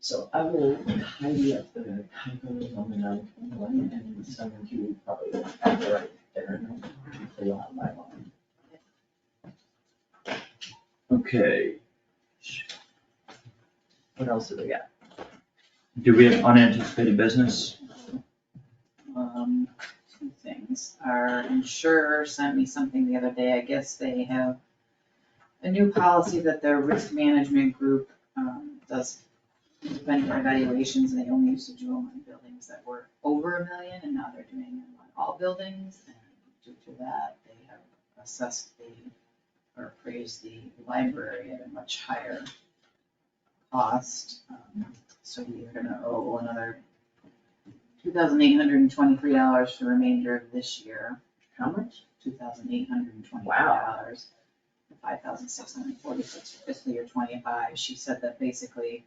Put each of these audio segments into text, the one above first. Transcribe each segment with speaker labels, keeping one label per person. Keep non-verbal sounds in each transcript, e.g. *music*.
Speaker 1: So I will tidy up the typos on the ninth and eleventh, and the seventh you would probably have to write there, so you'll have my line.
Speaker 2: Okay,
Speaker 1: What else do we got?
Speaker 2: do we have unanticipated business?
Speaker 3: Um, two things, our insurer sent me something the other day, I guess they have a new policy that their risk management group, um, does independent evaluations, and they only used to do them on oh buildings that were over a million, and now they're doing them on all buildings, and due to that, they have assessed the, or appraised the library at a much higher cost, um, so we are gonna owe another two thousand eight hundred and twenty-three dollars for the remainder of this year. How much? Two thousand eight hundred and twenty-three dollars. Five thousand six hundred and forty-six for fiscal year twenty-five. She said that basically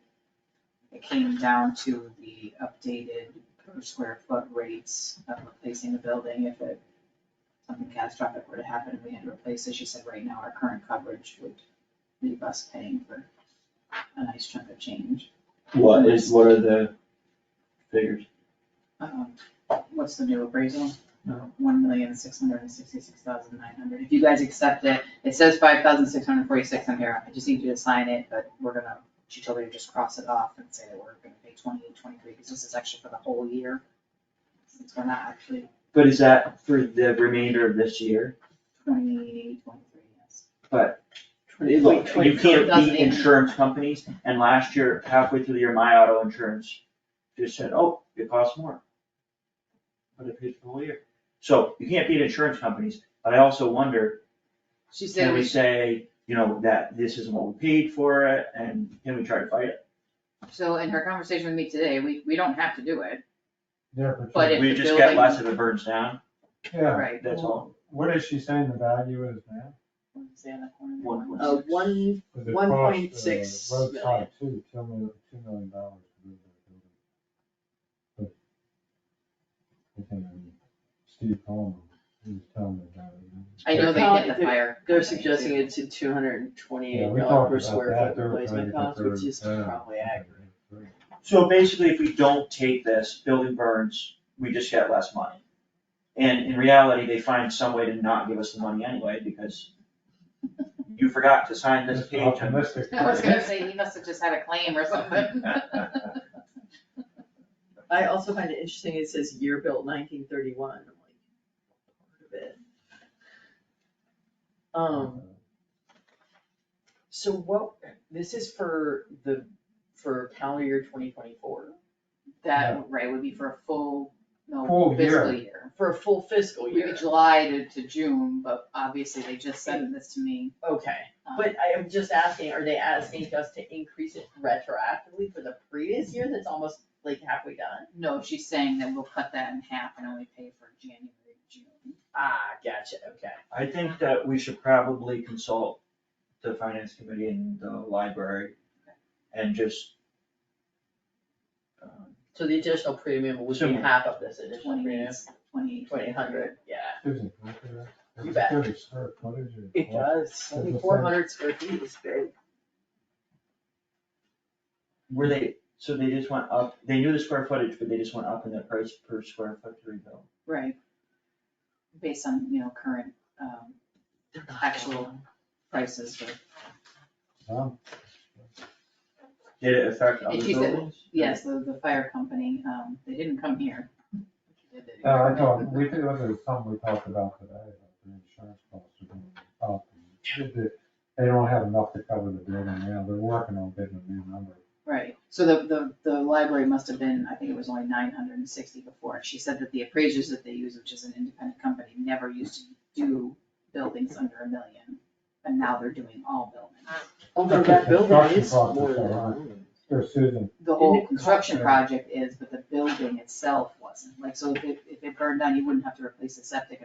Speaker 3: it came down to the updated per square foot rates of replacing the building if it, something catastrophic were to happen and we had to replace it. She said right now our current coverage would leave us paying for a nice chunk of change.
Speaker 2: What is, what are the figures?
Speaker 3: Um, What's the new appraisal? One million, six hundred and sixty-six thousand, nine hundred. If you guys accept it, it says five thousand, six hundred and forty-six on here. I just need you to sign it, but we're gonna, she told me to just cross it off and say that we're gonna pay twenty-eight, twenty-three, because this is actually for the whole year. Since we're not actually
Speaker 2: But is that for the remainder of this year?
Speaker 3: twenty-eight, twenty-three, yes.
Speaker 1: Oh,
Speaker 2: Look, you can't beat
Speaker 3: 28.
Speaker 2: insurance companies, and last year, halfway through the year, my auto insurance just said, oh, it costs more. But it pays for the whole year. So you can't beat insurance companies, but I also wonder,
Speaker 3: She said,
Speaker 2: can we
Speaker 3: we-
Speaker 2: say, you know, that this isn't what we paid for it, and can we try to fight it?
Speaker 3: so in her conversation with me today, we, we don't have to do it,
Speaker 4: Yeah,
Speaker 3: But
Speaker 4: but,
Speaker 3: if
Speaker 2: We
Speaker 3: the
Speaker 2: just get
Speaker 3: building-
Speaker 2: less if it burns down,
Speaker 4: yeah,
Speaker 3: right?
Speaker 2: that's all.
Speaker 4: what is she saying the value is now?
Speaker 3: What was the other corner?
Speaker 2: One point
Speaker 1: Uh, one,
Speaker 4: Cause it
Speaker 1: 1.6
Speaker 4: cost, uh, Road cost two, two million, two million dollars to move that building. But, I think, um, Steve Coleman, he was telling me about it. and-
Speaker 3: I know they did the fire.
Speaker 1: they're
Speaker 3: company, too.
Speaker 1: suggesting it's a two hundred and
Speaker 4: Yeah,
Speaker 1: twenty-eight
Speaker 4: we
Speaker 1: dollar
Speaker 4: talked
Speaker 1: per
Speaker 4: about
Speaker 1: square
Speaker 4: that,
Speaker 1: foot
Speaker 4: they were
Speaker 1: replacement
Speaker 4: trying to
Speaker 1: cost, which
Speaker 4: conserve
Speaker 1: is
Speaker 4: that.
Speaker 1: probably accurate.
Speaker 2: So basically, if we don't take this, building burns, we just get less money. And in reality, they find some way to not give us the money anyway, *laughs* because you forgot to sign this
Speaker 4: Just
Speaker 2: page. and-
Speaker 4: optimistic.
Speaker 3: I was gonna say, he must have just had a claim
Speaker 1: *laughs*
Speaker 3: or something.
Speaker 1: I also find it interesting, it says year built nineteen thirty-one, I'm like, part of it. Um, so what, this is for the, for calendar year twenty twenty-four,
Speaker 3: That, right, would be for a full, no,
Speaker 4: Full year.
Speaker 3: fiscal year.
Speaker 1: for a full fiscal
Speaker 3: Would be
Speaker 1: year,
Speaker 3: July to, to June, but obviously they just sent this to me.
Speaker 1: okay.
Speaker 3: um,
Speaker 1: But I am just asking, are they asking us to increase it retroactively for the previous year that's almost like halfway done?
Speaker 3: No, she's saying that we'll cut that in half and only pay for January, June.
Speaker 1: Ah, gotcha, okay.
Speaker 2: I think that we should probably consult the finance committee and the library and just. um,
Speaker 1: So the additional premium would be
Speaker 2: Similar.
Speaker 1: half of this additional
Speaker 3: Twenty,
Speaker 1: premium,
Speaker 3: twenty.
Speaker 1: twenty hundred, yeah.
Speaker 4: Is it, okay, that's
Speaker 1: You bet.
Speaker 4: good square footage or-
Speaker 1: It does, seventy-four hundred square feet is big.
Speaker 2: Were they, so they just went up, they knew the square footage, but they just went up in the price per square foot to rebuild.
Speaker 3: Right. Based on, you know, current, um, actual prices for
Speaker 4: Um,
Speaker 2: Did it affect other
Speaker 3: And she said-
Speaker 2: buildings?
Speaker 3: Yes, the, the fire company, um, they didn't come here.
Speaker 4: No, Uh, I know, we did, it was something we talked about today, about the insurance costs are going up. and They they don't have enough to cover the building now, they're working on getting a new number.
Speaker 3: Right, so the, the, the library must have been, I think it was only nine hundred and sixty before, and she said that the appraisers that they use, which is an independent company, never used to do buildings under a million. And now they're doing all buildings.
Speaker 4: Although that building is more than a Here, Susan,
Speaker 3: The whole
Speaker 1: Didn't it
Speaker 3: construction
Speaker 4: cost-
Speaker 3: project is, but the building itself wasn't, like, so if, it- if it burned down, you wouldn't have to replace the septic